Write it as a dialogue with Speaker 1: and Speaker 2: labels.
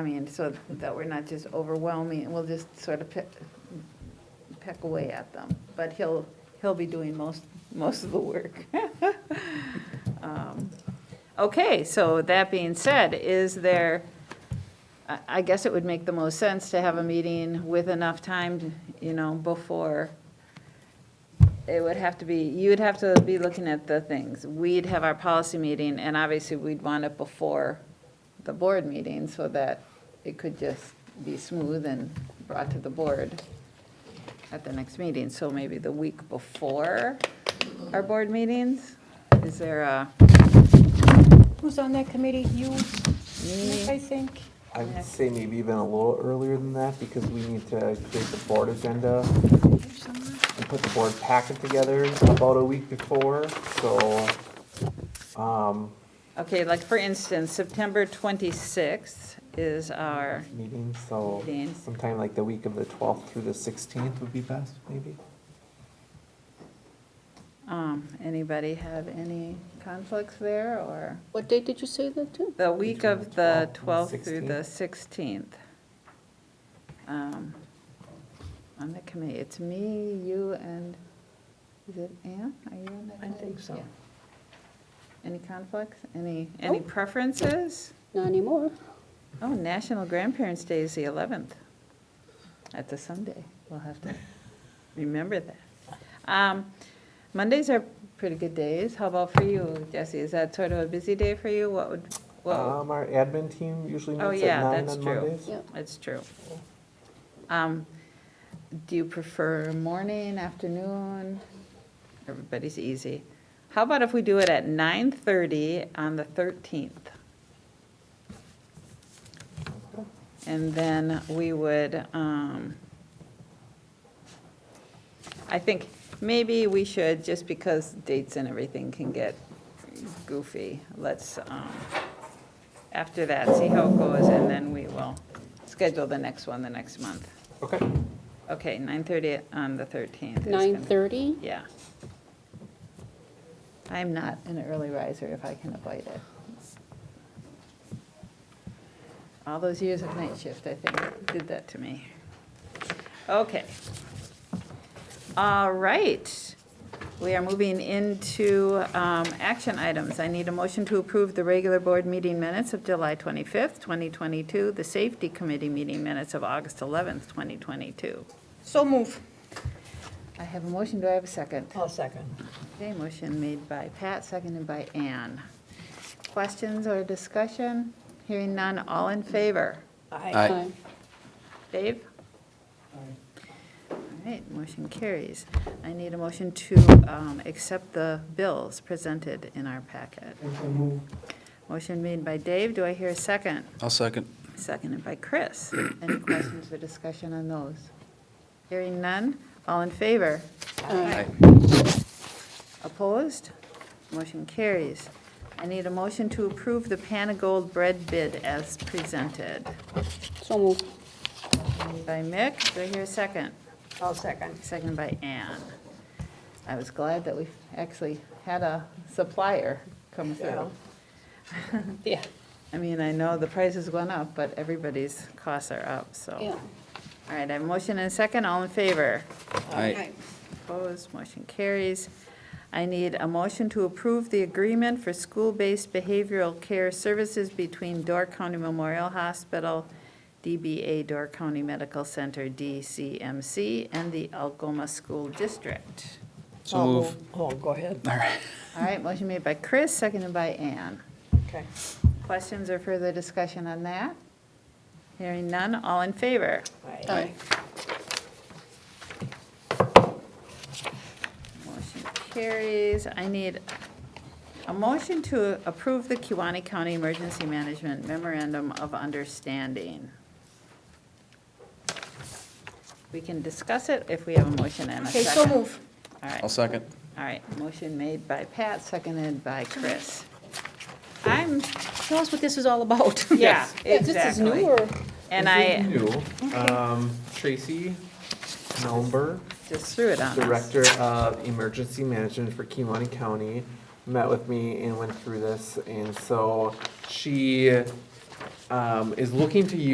Speaker 1: I mean, so that we're not just overwhelming, and we'll just sort of pick, peck away at them. But he'll, he'll be doing most, most of the work. Um, Okay, so that being said, is there, I, I guess it would make the most sense to have a meeting with enough time, you know, before it would have to be, you would have to be looking at the things. We'd have our policy meeting, and obviously, we'd want it before the board meeting so that it could just be smooth and brought to the board at the next meeting. So maybe the week before our board meetings? Is there a,
Speaker 2: Who's on that committee? You,
Speaker 1: Me.
Speaker 2: I think.
Speaker 3: I would say maybe even a little earlier than that because we need to create the board agenda and put the board packet together about a week before, so, um,
Speaker 1: okay, like for instance, September 26th is our,
Speaker 3: meeting, so
Speaker 1: Meeting.
Speaker 3: sometime like the week of the twelfth through the sixteenth would be best, maybe?
Speaker 1: um, anybody have any conflicts there or?
Speaker 4: What date did you say that to?
Speaker 1: The week of the 12th through the 16th. Um, On the committee, it's me, you, and, is it Ann? Are you on that?
Speaker 3: I think so.
Speaker 1: Yeah. Any conflicts? Any, any preferences?
Speaker 4: Not anymore.
Speaker 1: Oh, National Grandparents' Day is the 11th. That's a Sunday. We'll have to remember that. Um, Mondays are pretty good days. How about for you, Jesse? Is that sort of a busy day for you? What would, what?
Speaker 3: Um, our admin team usually
Speaker 1: Oh,
Speaker 3: meets
Speaker 1: yeah,
Speaker 3: at nine
Speaker 1: that's
Speaker 3: on
Speaker 1: true.
Speaker 3: Mondays.
Speaker 4: Yeah.
Speaker 1: That's true. Um, Do you prefer morning, afternoon? Everybody's easy. How about if we do it at 9:30 on the 13th? And then we would, um, I think maybe we should, just because dates and everything can get goofy, let's, um, after that, see how it goes, and then we will schedule the next one the next month.
Speaker 3: Okay,
Speaker 1: Okay, 9:30 on the 13th. is gonna-
Speaker 4: 9:30?
Speaker 1: Yeah. I'm not an early riser if I can avoid it. All those years of night shift, I think, did that to me. Okay. All right. We are moving into um, action items. I need a motion to approve the regular board meeting minutes of July 25th, 2022, the safety committee meeting minutes of August 11th, 2022.
Speaker 5: So move.
Speaker 1: I have a motion. Do I have a second?
Speaker 5: I'll second.
Speaker 1: Okay, motion made by Pat, seconded by Ann. Questions or discussion? Hearing none, all in favor?
Speaker 5: Aye.
Speaker 4: Aye.
Speaker 1: Dave? All right, motion carries. I need a motion to um, accept the bills presented in our packet. Motion made by Dave, do I hear a second?
Speaker 6: I'll second.
Speaker 1: Seconded by Chris. Any questions or discussion on those? Hearing none, all in favor?
Speaker 4: Aye.
Speaker 1: Opposed? Motion carries. I need a motion to approve the Panagold bread bid as presented.
Speaker 4: So moved.
Speaker 1: By Mick, do I hear a second?
Speaker 5: I'll second.
Speaker 1: Second by Ann. I was glad that we actually had a supplier come through.
Speaker 4: Yeah.
Speaker 1: I mean, I know the prices went up, but everybody's costs are up, so.
Speaker 4: Yeah.
Speaker 1: All right, I have a motion and a second, all in favor?
Speaker 6: Aye.
Speaker 1: Opposed, motion carries. I need a motion to approve the agreement for school-based behavioral care services between Door County Memorial Hospital, DBA Door County Medical Center, DCMC, and the Algoma School District.
Speaker 6: So move.
Speaker 5: Oh, go ahead.
Speaker 6: All right.
Speaker 1: All right, motion made by Chris, seconded by Ann.
Speaker 5: Okay.
Speaker 1: Questions or further discussion on that? Hearing none, all in favor?
Speaker 5: Aye.
Speaker 4: Aye.
Speaker 1: Motion carries. I need a motion to approve the Kiwanee County Emergency Management Memorandum of Understanding. We can discuss it if we have a motion and a
Speaker 5: Okay,
Speaker 1: second.
Speaker 5: so move.
Speaker 1: All right,
Speaker 6: I'll second.
Speaker 1: all right. Motion made by Pat, seconded by Chris. I'm,
Speaker 5: Tell us what this is all about.
Speaker 1: yeah, exactly.
Speaker 4: This is newer.
Speaker 1: And
Speaker 3: This
Speaker 1: I
Speaker 3: is new. Um, Tracy Melber
Speaker 1: just threw it on us.
Speaker 3: Director of Emergency Management for Kiwanee County, met with me and went through this. And so she um, is looking to use.